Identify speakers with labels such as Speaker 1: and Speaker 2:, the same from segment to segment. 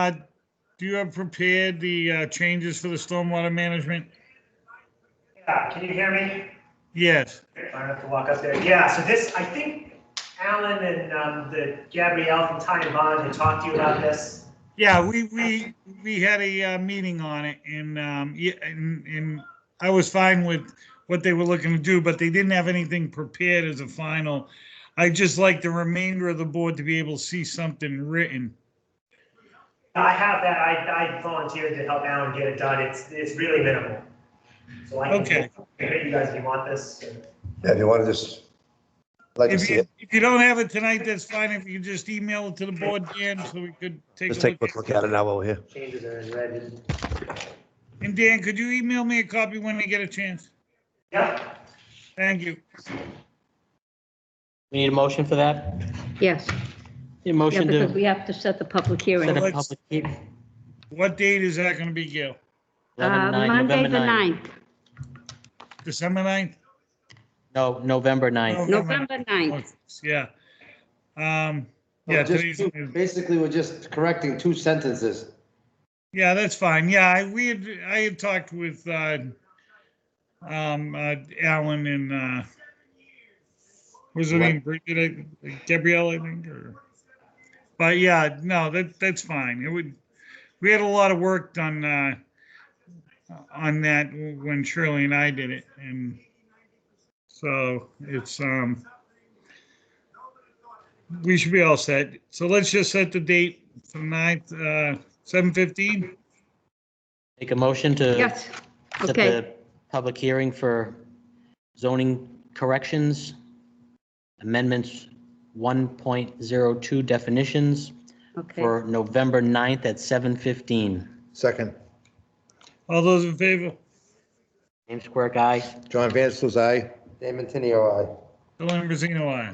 Speaker 1: Uh, Do you have prepared the uh, changes for the stormwater management?
Speaker 2: Yeah, can you hear me?
Speaker 1: Yes,
Speaker 2: I don't have to walk up there. Yeah, so this, I think Alan and um, the Gabrielle from Ty and Bond had talked to you about this.
Speaker 1: yeah, we, we, we had a uh, meeting on it and, um, yeah, and, and I was fine with what they were looking to do, but they didn't have anything prepared as a final. I'd just like the remainder of the board to be able to see something written.
Speaker 2: I have that, I, I volunteered to help Alan get it done. It's, it's really minimal. So I
Speaker 1: Okay.
Speaker 2: can, if you guys, if you want this.
Speaker 3: Yeah, if you want to just, like to
Speaker 1: If
Speaker 3: see
Speaker 1: you,
Speaker 3: it,
Speaker 1: if you don't have it tonight, that's fine. If you could just email it to the board, Dan, so we could take
Speaker 3: just
Speaker 1: a
Speaker 3: take a
Speaker 1: look.
Speaker 3: quick look at it now while we're here.
Speaker 2: Changes are in red.
Speaker 1: And Dan, could you email me a copy when you get a chance?
Speaker 2: Yeah,
Speaker 1: Thank you.
Speaker 4: We need a motion for that?
Speaker 5: Yes,
Speaker 4: Need a
Speaker 5: yeah,
Speaker 4: motion
Speaker 5: because
Speaker 4: to
Speaker 5: we have to set the public
Speaker 4: set
Speaker 5: hearing.
Speaker 4: a
Speaker 1: let's-
Speaker 4: public hearing?
Speaker 1: What date is that gonna be, Gail?
Speaker 5: Uh, Monday, the 9th,
Speaker 1: December 9th?
Speaker 4: No, November 9th.
Speaker 5: November 9th.
Speaker 1: Oh, Yeah. Um,
Speaker 6: Well,
Speaker 1: yeah,
Speaker 6: Oh, just
Speaker 1: today's-
Speaker 6: two- Basically, we're just correcting two sentences.
Speaker 1: yeah, that's fine. Yeah, I, we had, I had talked with, uh, um, uh, Alan and, uh, was her name Bridget, I- Gabrielle, I think, or, but yeah, no, that, that's fine. It would, we had a lot of work done, uh, on that when Shirley and I did it, and so it's, um, we should be all set. So let's just set the date for the ninth, uh, seven fifteen?
Speaker 4: Make a motion to
Speaker 5: Yes,
Speaker 4: set
Speaker 5: okay.
Speaker 4: the public hearing for zoning corrections, amendments 1.02 definitions
Speaker 5: okay.
Speaker 4: for November 9th at 7:15.
Speaker 3: Second,
Speaker 1: All those in favor?
Speaker 4: James Quirk, aye.
Speaker 3: John Vansel's aye.
Speaker 6: Damon Tenio,
Speaker 1: The Lambrizino aye.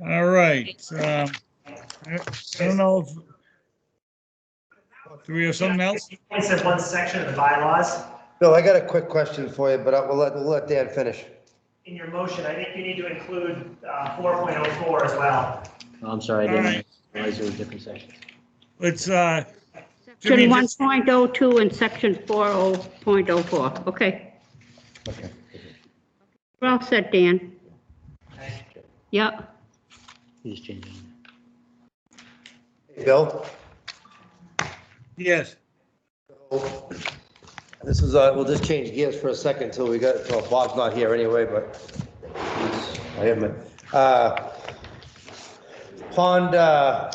Speaker 1: All right, um, I I don't know if, do we have something else?
Speaker 2: it says one section of the bylaws.
Speaker 6: No, I got a quick question for you, but I- we'll let, we'll let Dan finish.
Speaker 2: In your motion, I think you need to include uh, 4.04 as well.
Speaker 4: Oh, I'm sorry, I
Speaker 1: All right.
Speaker 4: didn't realize it was a different section.
Speaker 1: Let's, uh, Jimmy,
Speaker 5: Section
Speaker 1: just-
Speaker 5: 1.02 and section 40.04, okay. We're all set, Dan. Yep,
Speaker 4: He's changing.
Speaker 3: Bill?
Speaker 1: yes,
Speaker 6: This is, uh, we'll just change gears for a second till we got, well, Bob's not here anyway, but he's- I am, uh, Pond, uh,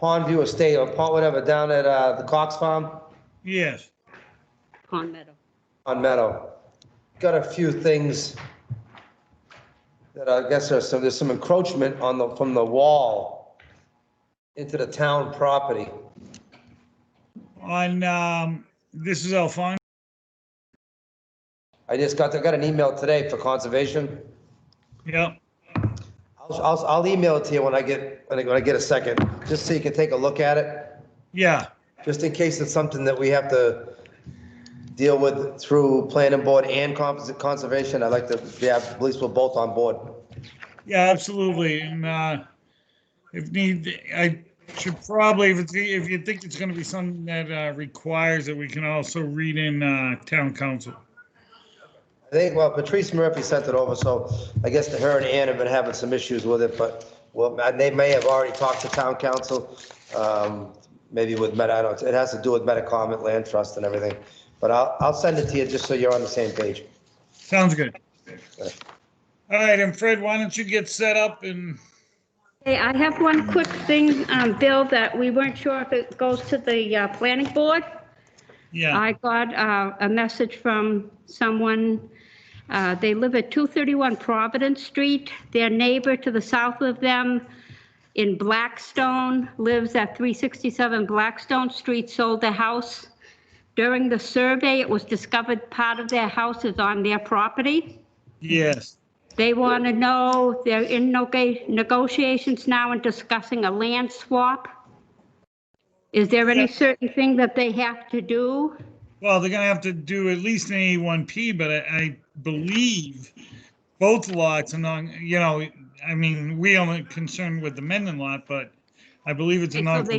Speaker 6: Pondview Estate or Pond, whatever, down at, uh, the Cox Farm
Speaker 1: yes.
Speaker 5: Pond Meadow.
Speaker 6: on Meadow. Got a few things that I guess there's some, there's some encroachment on the, from the wall into the town property.
Speaker 1: On, um, this is Alphonse.
Speaker 6: I just got, I got an email today for conservation.
Speaker 1: Yep,
Speaker 6: I'll, I'll, I'll email it to you when I get, when I, when I get a second, just so you can take a look at it,
Speaker 1: yeah,
Speaker 6: just in case it's something that we have to deal with through planning board and cons- conservation. I'd like to, yeah, at least we're both on board.
Speaker 1: yeah, absolutely, and, uh, if need, I should probably, if it's, if you think it's gonna be something that, uh, requires it, we can also read in, uh, town council.
Speaker 6: I think, well, Patrice Murphy sent it over, so I guess the her and Ann have been having some issues with it, but, well, and they may have already talked to town council, um, maybe with Meta, I don't, it has to do with Metacomet Land Trust and everything. But I'll, I'll send it to you just so you're on the same page.
Speaker 1: Sounds good. All right, and Fred, why don't you get set up and,
Speaker 5: Hey, I have one quick thing, um, Bill, that we weren't sure if it goes to the uh, planning board.
Speaker 1: yeah,
Speaker 5: I got uh, a message from someone, uh, they live at 231 Providence Street. Their neighbor to the south of them in Blackstone lives at 367 Blackstone Street, sold their house. During the survey, it was discovered part of their house is on their property.
Speaker 1: yes,
Speaker 5: They want to know, they're in nega- negotiations now and discussing a land swap. Is there any certain thing that they have to do?
Speaker 1: well, they're gonna have to do at least an A1P, but I, I believe both lots and on, you know, I mean, we only concerned with the Mendon lot, but
Speaker 7: I believe it's a
Speaker 1: Okay, so
Speaker 7: non.
Speaker 1: they